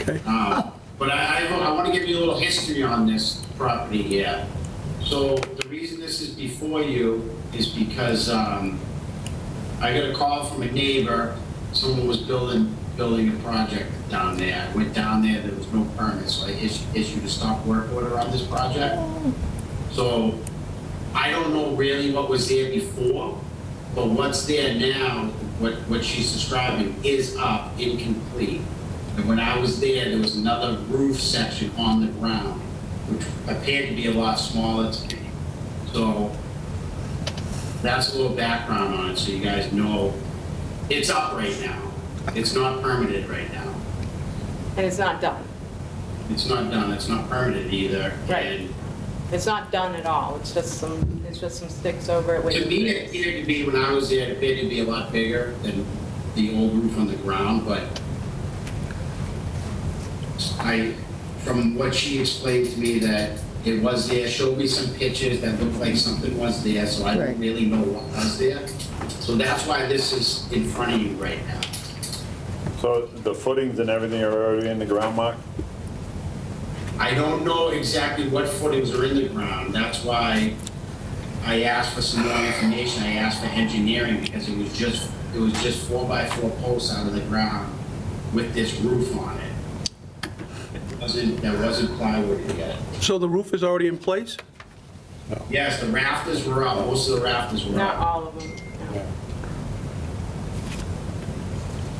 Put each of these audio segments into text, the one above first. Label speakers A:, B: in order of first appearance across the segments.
A: Okay.
B: Um, But I, I, I want to give you a little history on this property here. So the reason this is before you is because, um, I got a call from a neighbor, someone was building, building a project down there. I Went down there, there was no permit, so I issued, issued a stop work order on this project. So I don't know really what was there before, but what's there now, what, what she's describing is up, incomplete. And when I was there, there was another roof section on the ground, which appeared to be a lot smaller to me. So that's a little background on it, so you guys know. It's up right now. It's not permitted right now.
C: And it's not done.
B: It's not done, it's not permitted either.
C: Right.
B: And
C: It's not done at all. It's just some, it's just some sticks over it.
B: To me, it
C: which-
B: appeared to be, when I was there, it appeared to be a lot bigger than the old roof on the ground, but I, from what she explained to me, that it was there, showed me some pictures that looked like something was there, so I
A: Right.
B: didn't really know what was there. So that's why this is in front of you right now.
D: So the footings and everything are already in the ground, Mark?
B: I don't know exactly what footings are in the ground, that's why I asked for some more information, I asked for engineering, because it was just, it was just four by four posts out of the ground with this roof on it. It Wasn't, there wasn't plywood yet.
A: So the roof is already in place?
B: Yes, the rafters were up, most of the rafters were
C: Not
B: up.
C: all of them. no.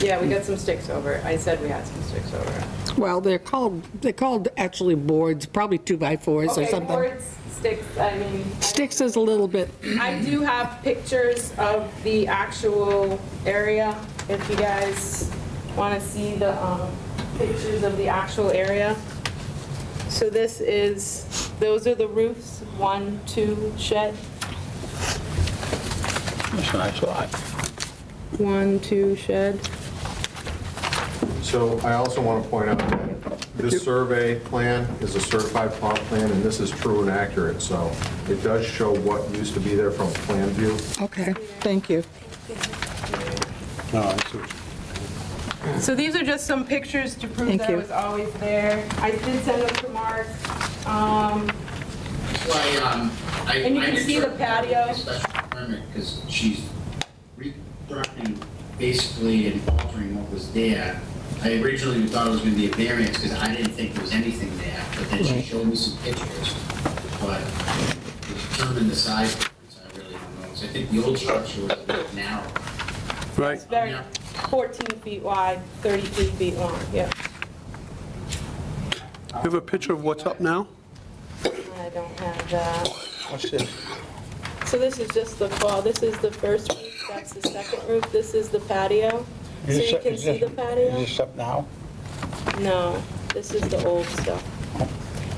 C: Yeah, we got some sticks over it. I said we had some sticks over it.
E: Well, they're called, they're called actually boards, probably two-by-fours or
C: Okay,
E: something.
C: boards, sticks, I mean. I-
E: Sticks is a little bit,
C: I do have pictures of the actual area, if you guys want to see the um, pictures of the actual area. So this is, those are the roofs, one, two shed,
A: That's a nice lot.
C: one, two shed.
F: So I also want to point out that this survey plan is a certified plot plan, and this is true and accurate, so it does show what used to be there from plan view.
E: okay, thank you.
A: No, I see.
C: So these are just some pictures to prove
E: Thank
C: that I
E: you.
C: was always there. I did send them to Mark. Um,
B: That's why, um, I.
C: And you
B: I
C: can
B: did
C: see the
B: try-
C: patio.
B: Special permit, because she's reconstructing basically and altering what was there. I originally thought it was gonna be a variance, because I didn't think there was anything there, but then she
E: Right.
B: showed me some pictures. But determined the size, difference, I really don't know, 'Cause I think the old structure was a bit narrow.
A: Right,
C: it's very, 14 feet wide, 32 feet long, yeah.
A: you have a picture of what's up now?
C: I don't have that.
A: What's this?
C: So this is just the fall, this is the first roof, that's the second roof, this is the patio. So you can see the patio?
A: up now?
C: No, this is the old stuff.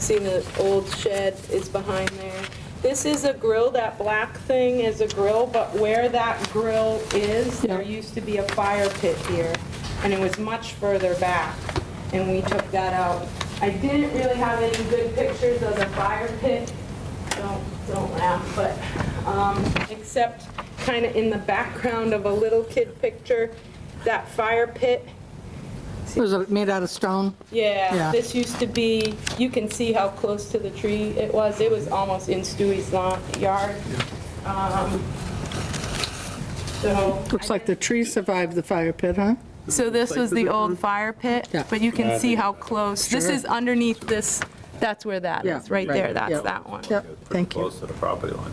C: See, the old shed is behind there. This is a grill, that black thing is a grill, but where that grill is, there
E: Yeah.
C: used to be a fire pit here, and it was much further back, and we took that out. I didn't really have any good pictures of the fire pit, don't, don't laugh, but, um, except kind of in the background of a little kid picture, that fire pit
E: Was it made out of stone?
C: yeah,
E: Yeah.
C: this used to be, you can see how close to the tree it was. It was almost in Stewie's lawn, yard. Um, So.
E: Looks like the tree survived the fire pit, huh?
C: So this was the old fire pit,
E: Yeah.
C: but you can see how close. This
E: Sure.
C: is underneath this, that's where that
E: Yeah,
C: is, right
E: right,
C: there,
E: yeah. Mm-hmm.
C: that's that one.
E: Yep, thank you.
D: Close to the property line.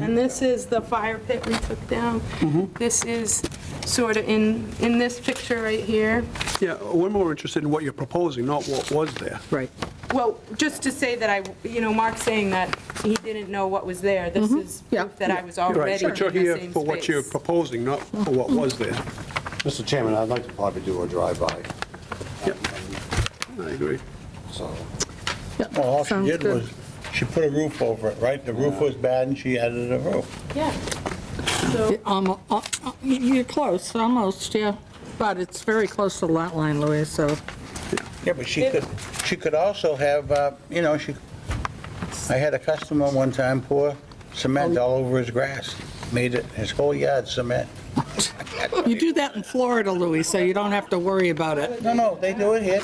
C: And this is the fire pit we took down.
E: Mm-hmm.
C: This is sort of in, in this picture right here.
A: Yeah, we're more interested in what you're proposing, not what was there.
E: Right.
C: Well, just to say that I, you know, Mark's saying that he didn't know what was there. This is
E: Yeah.
C: proof that I was
A: Right,
C: already in the
A: but you're here
C: same
A: for what you're
C: space.
A: proposing, not for what was there.
G: Mr. Chairman, I'd like to probably do a drive-by,
A: Yep, I agree.
G: so.
E: Yep,
H: Well, all she
E: sounds
H: did
E: good.
H: was, she put a roof over it, right? The roof was bad and she added a roof.
C: Yeah. So,
E: Almo- uh, uh, You're close, almost, yeah. But it's very close to the lot line, Louis, so,
H: Yeah, but she could, she could also have, uh, you know, she, I had a customer one time pour
E: Oh.
H: cement all over his grass, made it, his whole yard cement.
E: you do that in Florida, Louis, so you don't have to worry about it.
H: No, no, they do it here.